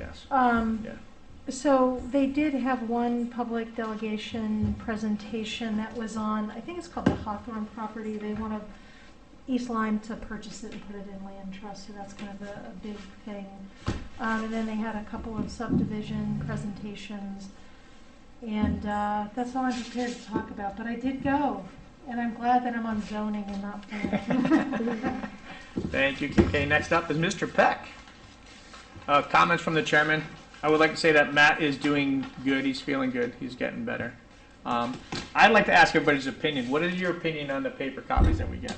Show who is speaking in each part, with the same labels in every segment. Speaker 1: yes,
Speaker 2: Um,
Speaker 1: yeah.
Speaker 2: So they did have one public delegation presentation that was on, I think it's called the Hawthorne property. They want to, East Lyme to purchase it and put it in land trust, so that's kind of a, a big thing. Um, and then they had a couple of subdivision presentations. And, uh, that's all I'm prepared to talk about, but I did go. And I'm glad that I'm on zoning and not planning.
Speaker 1: Thank you, KK. Next up is Mr. Peck. Uh, Comments from the chairman. I would like to say that Matt is doing good. He's feeling good. He's getting better. Um, I'd like to ask everybody's opinion. What is your opinion on the paper copies that we get?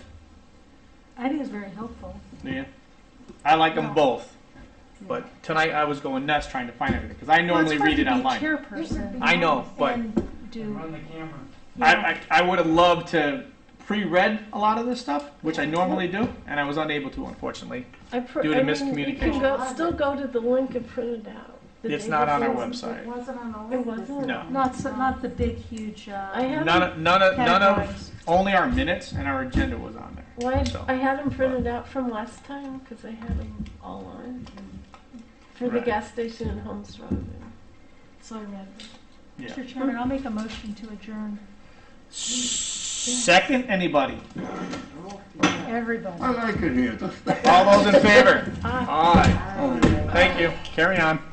Speaker 2: I think it's very helpful.
Speaker 1: Yeah. I like
Speaker 2: No.
Speaker 1: them both, but tonight I was going nuts trying to find everything because I normally read it online.
Speaker 2: Well, it's hard to be chairperson.
Speaker 1: I know, but
Speaker 2: And do.
Speaker 3: Run the camera.
Speaker 1: I, I, I would have loved to pre-read a lot of this stuff, which I normally do, and I was unable to, unfortunately.
Speaker 4: I pr-
Speaker 1: Due to
Speaker 4: I mean, You
Speaker 1: miscommunication.
Speaker 4: can go, still go to the link and print it out. The
Speaker 1: It's
Speaker 4: day
Speaker 1: not on our
Speaker 4: before.
Speaker 1: website.
Speaker 3: It wasn't on the
Speaker 4: It
Speaker 3: list.
Speaker 4: wasn't?
Speaker 1: No.
Speaker 2: Not, so- not the big, huge,
Speaker 4: I
Speaker 2: uh,
Speaker 4: have,
Speaker 1: None, of- none of, none of,
Speaker 2: categories.
Speaker 1: only our minutes and our agenda was on there.
Speaker 4: well, I-
Speaker 1: so.
Speaker 4: I had them printed out from last time, because I had them all on. For the
Speaker 1: Right.
Speaker 4: gas station in Holmes Road.
Speaker 2: So I read.
Speaker 1: Yeah.
Speaker 2: Mr. Chairman, I'll make a motion to adjourn.
Speaker 1: Second, anybody?
Speaker 2: Everybody.
Speaker 5: I like it here.
Speaker 1: All those in favor?
Speaker 4: Aye.
Speaker 1: Aye. Thank you. Carry on.